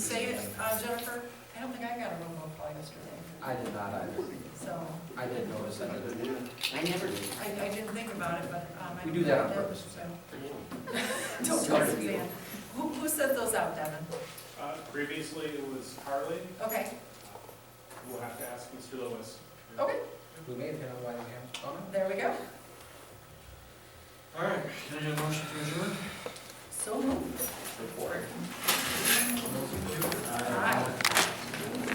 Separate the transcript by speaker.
Speaker 1: say it, uh, Jennifer? I don't think I got a roll call call yesterday,
Speaker 2: I did not either.
Speaker 1: so
Speaker 2: I did notice that.
Speaker 3: I never,
Speaker 1: I, I didn't think about it, but, um, I.
Speaker 2: We do that on
Speaker 1: did,
Speaker 2: purpose.
Speaker 1: so.
Speaker 3: I know.
Speaker 1: Don't tell
Speaker 3: Sorry.
Speaker 1: Suzanne. Who, who sent those out, Devin?
Speaker 4: Uh, Previously, it was Harley.
Speaker 1: Okay,
Speaker 4: We'll have to ask Mr. Lewis.
Speaker 1: okay,
Speaker 2: We may have hit on Whiting Ham's comment.
Speaker 1: there we go.
Speaker 5: All right, can I get a motion to adjourn?
Speaker 1: So moved.
Speaker 2: Reporting.
Speaker 1: Aye.